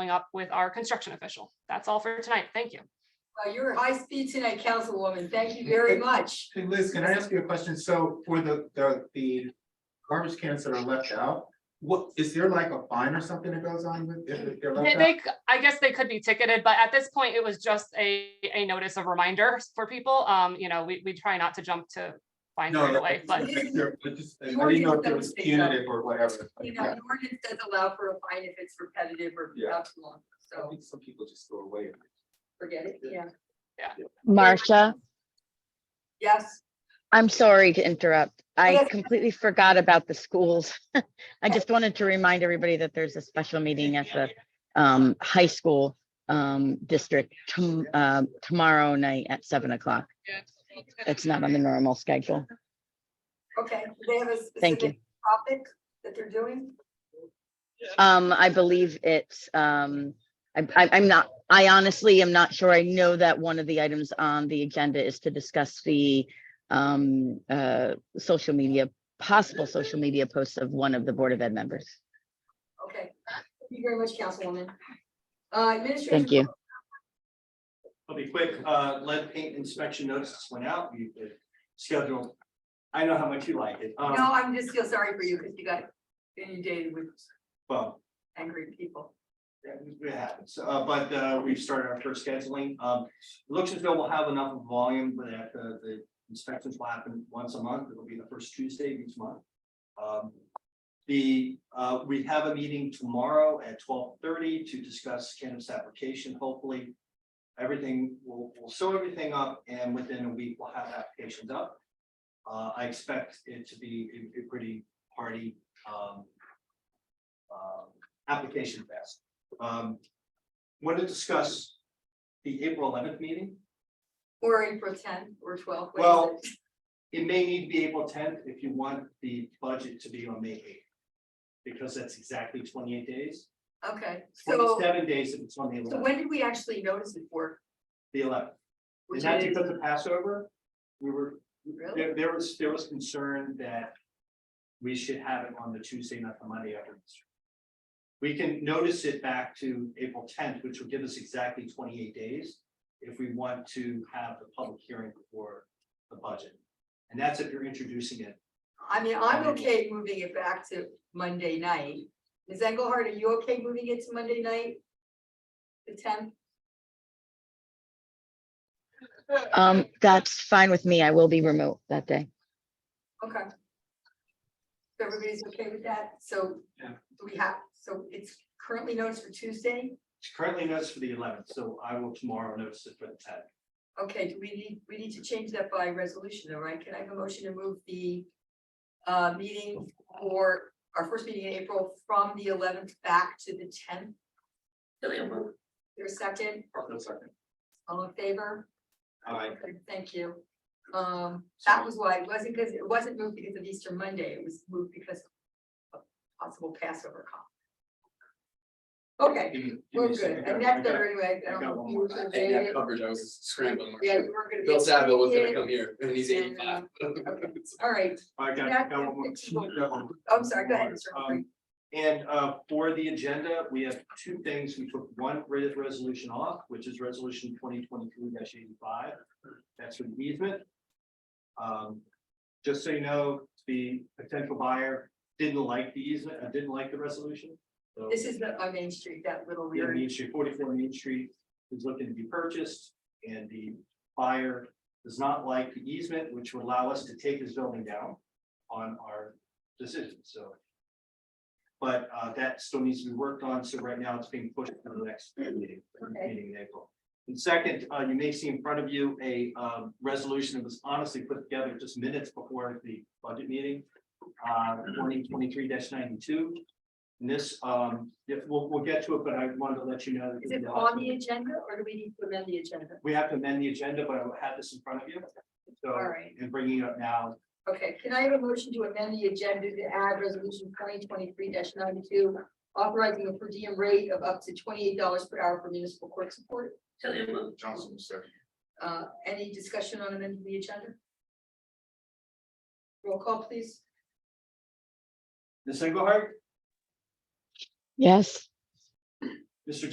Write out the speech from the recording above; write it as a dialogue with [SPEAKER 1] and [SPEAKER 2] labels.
[SPEAKER 1] following up with our construction official. That's all for tonight. Thank you.
[SPEAKER 2] Well, you were high speed tonight, Councilwoman. Thank you very much.
[SPEAKER 3] Hey Liz, can I ask you a question? So for the, the, the garbage cans that are left out, what, is there like a fine or something that goes on with, if they're
[SPEAKER 1] They,
[SPEAKER 3] left out?
[SPEAKER 1] they c- I guess they could be ticketed, but at this point, it was just a, a notice of reminder for people. Um, you know, we, we try not to jump to fines
[SPEAKER 3] No,
[SPEAKER 1] right
[SPEAKER 3] no,
[SPEAKER 1] away, but
[SPEAKER 3] I just- I just- I
[SPEAKER 2] You already
[SPEAKER 3] didn't know if it was
[SPEAKER 2] did that.
[SPEAKER 3] punitive or whatever.
[SPEAKER 2] You know, the ordinance does allow for a fine if it's repetitive or
[SPEAKER 3] Yeah.
[SPEAKER 2] perhaps long,
[SPEAKER 3] I
[SPEAKER 2] so
[SPEAKER 3] think Some people just throw away.
[SPEAKER 2] forget it, yeah.
[SPEAKER 4] Marcia,
[SPEAKER 2] Yes,
[SPEAKER 4] I'm sorry to interrupt. I
[SPEAKER 2] Yes.
[SPEAKER 4] completely forgot about the schools. I just wanted to remind everybody that there's a special meeting at the um high school um district tom- uh, tomorrow night at seven o'clock. It's not on the normal schedule.
[SPEAKER 2] okay. Do They have a
[SPEAKER 4] Thank you.
[SPEAKER 2] specific topic that they're doing?
[SPEAKER 4] Um, I believe it's um, I I I'm not, I honestly am not sure. I know that one of the items on the agenda is to discuss the um uh social media, possible social media posts of one of the Board of Ed members.
[SPEAKER 2] Okay. Thank you very much, Councilwoman. Uh, Administrator.
[SPEAKER 4] Thank you.
[SPEAKER 5] I'll be quick, uh, lead paint inspection notices went out, we uh, scheduled. I know how much you like it,
[SPEAKER 2] No,
[SPEAKER 5] um,
[SPEAKER 2] I'm just feel sorry for you because you got inundated with
[SPEAKER 5] well,
[SPEAKER 2] angry people.
[SPEAKER 5] that- it happens, uh, but, uh, we've started our first scheduling, um. it Looks as though we'll have enough volume, but that the, the inspections will happen once a month, it'll be the first Tuesday of each month. Um, the, uh, we have a meeting tomorrow at twelve thirty to discuss cannabis application, hopefully. Everything, we'll, we'll sew everything up and within a week we'll have applications up. Uh, I expect it to be a, a pretty hearty, um. um, application fest. Um, want to discuss the April eleventh meeting?
[SPEAKER 2] Or April ten or twelve. what is
[SPEAKER 5] Well,
[SPEAKER 2] it?
[SPEAKER 5] it may need to be April tenth if you want the budget to be on May eighth. Because that's exactly twenty-eight days,
[SPEAKER 2] Okay, so,
[SPEAKER 5] twenty-seven days if it's on the
[SPEAKER 2] so
[SPEAKER 5] eleventh,
[SPEAKER 2] when did we actually notice it for?
[SPEAKER 5] the eleventh.
[SPEAKER 2] Which
[SPEAKER 5] Is that
[SPEAKER 2] is-
[SPEAKER 5] because of Passover? We were,
[SPEAKER 2] Really?
[SPEAKER 5] there, there was, there was concern that we should have it on the Tuesday, not the Monday after. Easter. We can notice it back to April tenth, which will give us exactly twenty-eight days if we want to have the public hearing before the budget. And that's if you're introducing it
[SPEAKER 2] I mean, I'm okay moving it back to Monday night. Ms. Engelhardt, are you okay moving it to Monday night? The tenth,
[SPEAKER 4] Um, that's fine with me. I will be remote that day.
[SPEAKER 2] okay. So Everybody's okay with that? So
[SPEAKER 5] Yeah.
[SPEAKER 2] do we have, so it's currently noticed for Tuesday?
[SPEAKER 5] It's currently noticed for the eleventh, so I will tomorrow notice it for the tenth.
[SPEAKER 2] Okay, do we need, we need to change that by resolution, all right? Can I have a motion to move the uh, meeting for our first meeting in April from the eleventh back to the tenth? There's a second, all in favor?
[SPEAKER 5] Alright,
[SPEAKER 2] Okay, Thank you. Um, that was why, it wasn't because, it wasn't moved because of Easter Monday, it was moved because of possible Passover comp. Okay,
[SPEAKER 5] give me- give me a
[SPEAKER 2] we're good,
[SPEAKER 5] second.
[SPEAKER 2] and that's
[SPEAKER 5] I got-
[SPEAKER 2] better anyway. I
[SPEAKER 5] I
[SPEAKER 2] don't
[SPEAKER 5] got
[SPEAKER 2] know
[SPEAKER 5] one
[SPEAKER 2] if you were
[SPEAKER 5] more.
[SPEAKER 2] gonna
[SPEAKER 6] I
[SPEAKER 2] say
[SPEAKER 6] had
[SPEAKER 2] it.
[SPEAKER 6] covered, I was scrambling.
[SPEAKER 2] Yeah, you were gonna be.
[SPEAKER 6] Bill Saville was gonna come
[SPEAKER 2] excited.
[SPEAKER 6] here and he's eighty five.
[SPEAKER 2] All right,
[SPEAKER 5] I got, I got one more. Got one more.
[SPEAKER 2] Oh, I'm sorry, go ahead. Mr. Humphrey.
[SPEAKER 5] Um, And uh, for the agenda, we have two things. We took one re- resolution off, which is resolution twenty twenty-two eighty-five. That's for the easement. Um, Just so you know, the potential buyer didn't like the easement, uh, didn't like the resolution. so-
[SPEAKER 2] This is the, on Main Street, that little
[SPEAKER 5] Yeah,
[SPEAKER 2] weird,
[SPEAKER 5] Main Street, forty-four Main Street is looking to be purchased, and the buyer does not like the easement, which would allow us to take his building down on our decision, so. But uh, that still needs to be worked on, so right now it's being pushed to the next meeting,
[SPEAKER 2] Okay.
[SPEAKER 5] meeting in April. And second, uh, you may see in front of you a um, resolution that was honestly put together just minutes before the budget meeting, uh, twenty twenty-three ninety-two. And this, um, yeah, we'll, we'll get to it, but I wanted to let you know. that
[SPEAKER 2] is it on the agenda or do we need to amend the agenda?
[SPEAKER 5] We have to amend the agenda, but I had this in front of you.
[SPEAKER 2] All
[SPEAKER 5] So,
[SPEAKER 2] right.
[SPEAKER 5] and bringing it up now,
[SPEAKER 2] Okay, can I have a motion to amend the agenda to add resolution twenty twenty-three ninety-two, authorizing a per diem rate of up to twenty-eight dollars per hour for municipal court support?
[SPEAKER 3] Johnson, sir.
[SPEAKER 2] Uh, any discussion on amending the agenda? Roll call, please.
[SPEAKER 5] Ms. Engelhardt,
[SPEAKER 4] Yes.
[SPEAKER 5] Mr.